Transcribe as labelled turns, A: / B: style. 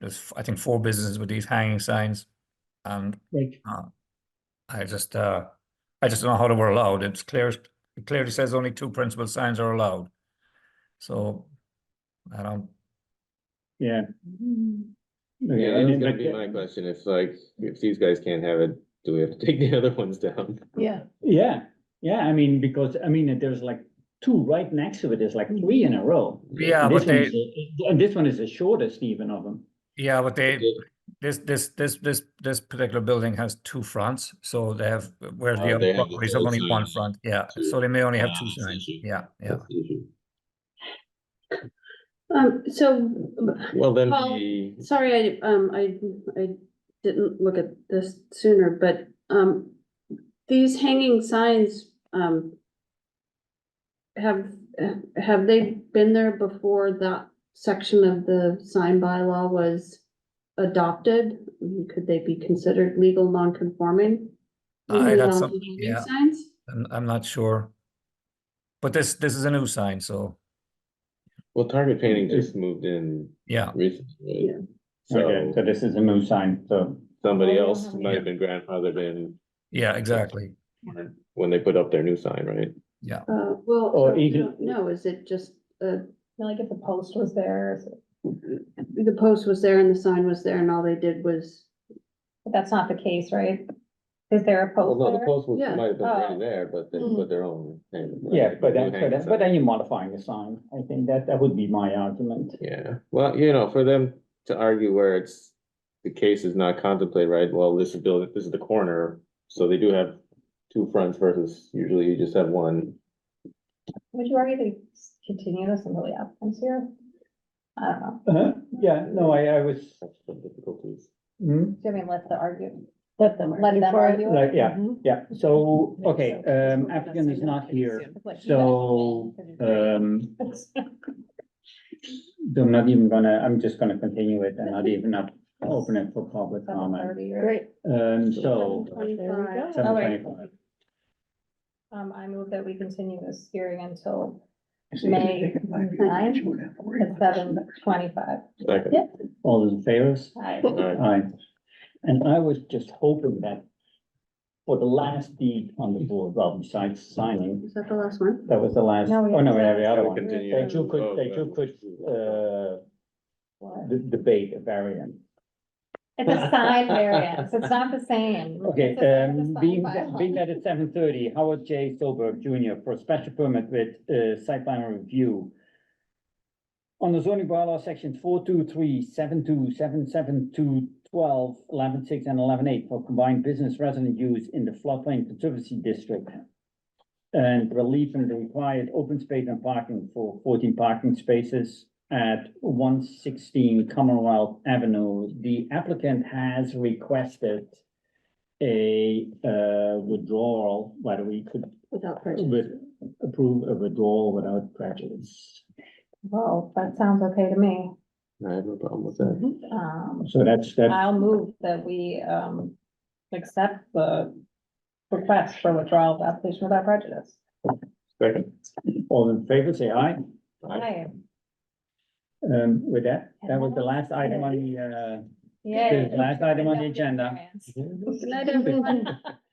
A: there's, I think, four businesses with these hanging signs. And
B: Like,
A: I just, uh, I just don't know how they were allowed. It's clear, it clearly says only two principal signs are allowed. So I don't,
B: yeah.
C: Mm-hmm. Yeah, that was gonna be
B: Okay,
C: my question, if like, if these guys can't have it, do we have to take the other ones down?
D: Yeah,
B: Yeah, yeah, I mean, because, I mean, there's like two right next to it, there's like three in a row.
A: yeah,
B: And
A: but
B: this one
A: they,
B: is the- And this one is the shortest even of them.
A: yeah, but they,
C: Did-
A: This, this, this, this, this particular building has two fronts, so they have, whereas
C: Oh,
A: the
C: they
A: other
C: have the
A: properties have
C: third
A: only one
C: sign.
A: front, yeah,
C: Two.
A: so they may only have
C: Ah,
A: two
C: I
A: signs,
C: see.
A: yeah, yeah.
C: that's the issue.
D: um, so,
C: Well, then
D: Well,
C: the,
D: sorry, I, um, I, I didn't look at this sooner, but, um, these hanging signs, um, have, have they been there before that section of the sign bylaw was adopted? I mean, Could they be considered legal non-conforming?
A: Aye,
D: Even
A: that's
D: on
A: something,
D: hanging
A: yeah.
D: Signs?
A: I'm, I'm not sure. But this, this is a new sign, so,
C: well, Target Painting just moved in
A: yeah,
C: recently.
D: Yeah.
B: Okay,
C: So
B: so this is a new sign, so.
C: somebody
D: Oh,
C: else
A: Yeah.
C: might have been grandfathered in
A: yeah, exactly,
C: when they put up their new sign, right?
D: Uh, well.
B: Or
D: we
B: even-
D: don't know. is it just, uh,
E: Like if the post was there, is it-
D: the post was there and the sign was there and all they did was
E: but that's not the case, right? Is there a
C: Well,
E: post
C: no, the
E: there?
C: post was-
D: Oh, Yeah. uh, mm-hmm.
C: might have been
E: Oh.
C: already there, but they
E: Mm.
C: put their own. name, like,
B: Yeah, but
C: new
B: then, but
C: hanging
B: then,
C: sign.
B: but then you're modifying the sign. I think that, that would be my argument.
C: Yeah, well, you know, for them to argue where it's, the case is not contemplated, right, well, this is building, this is the corner, so they do have two fronts versus usually you just have one.
E: Would you argue they s- continue this until the applicant's here? I don't know.
B: Uh-huh, Yeah, no, I, I was,
C: That's the difficulties.
B: hmm,
E: Do you mean let the argue? Let them. Let
D: argue
E: them
D: for it.
E: argue.
B: like,
E: it?
B: yeah, yeah, so,
E: Makes
B: okay,
E: sense.
B: um, applicant is not here,
E: Like, you
B: so, um, I'm not even gonna, I'm just gonna continue it and not even up, um, open it for public
E: Seven
B: comment.
E: thirty or-
D: Great.
B: Um, so,
D: Twenty-five.
B: seven
E: All right.
B: twenty-five.
E: Um, I move that we continue this hearing until May ninth at seven twenty-five.
C: Second.
B: All those in favor?
E: Hi.
C: Alright.
B: Aye. And I was just hoping that for the last deed on the board, well, besides signing,
D: Is that the last one?
B: that was the last,
E: No, we
B: oh, no,
E: have-
B: every other
C: Gotta
B: one.
C: continue.
B: That you could,
C: Oh,
B: that you
C: good.
B: could, uh, d- debate a variant.
E: It's a sign variance, it's not the same.
B: Okay,
E: It's a- it's a
B: um,
E: sign
B: being,
E: bylaw.
B: being that it's seven thirty, Howard J. Solberg Junior for a special permit with, uh, site plan review. On the zoning bylaw sections four two three, seven two, seven seven two, twelve, eleven six, and eleven eight for combined business resident use in the floodplain conservancy district. And relief from the required open space and parking for fourteen parking spaces at one sixteen Commonwealth Avenue. The applicant has requested a uh withdrawal, whether we could
D: Without prejudice.
B: with approve a withdrawal without prejudice.
E: Well, that sounds okay to me.
C: I have no problem with that.
E: Um,
B: So that's that's
E: I'll move that we, um, accept the request for withdrawal of the application without prejudice.
C: Second.
B: all in favor, say aye.
E: Aye.
B: Um with that, that was the last item on the uh
E: Yay.
B: the last item on the agenda.
E: Variance.
D: Good night, everyone.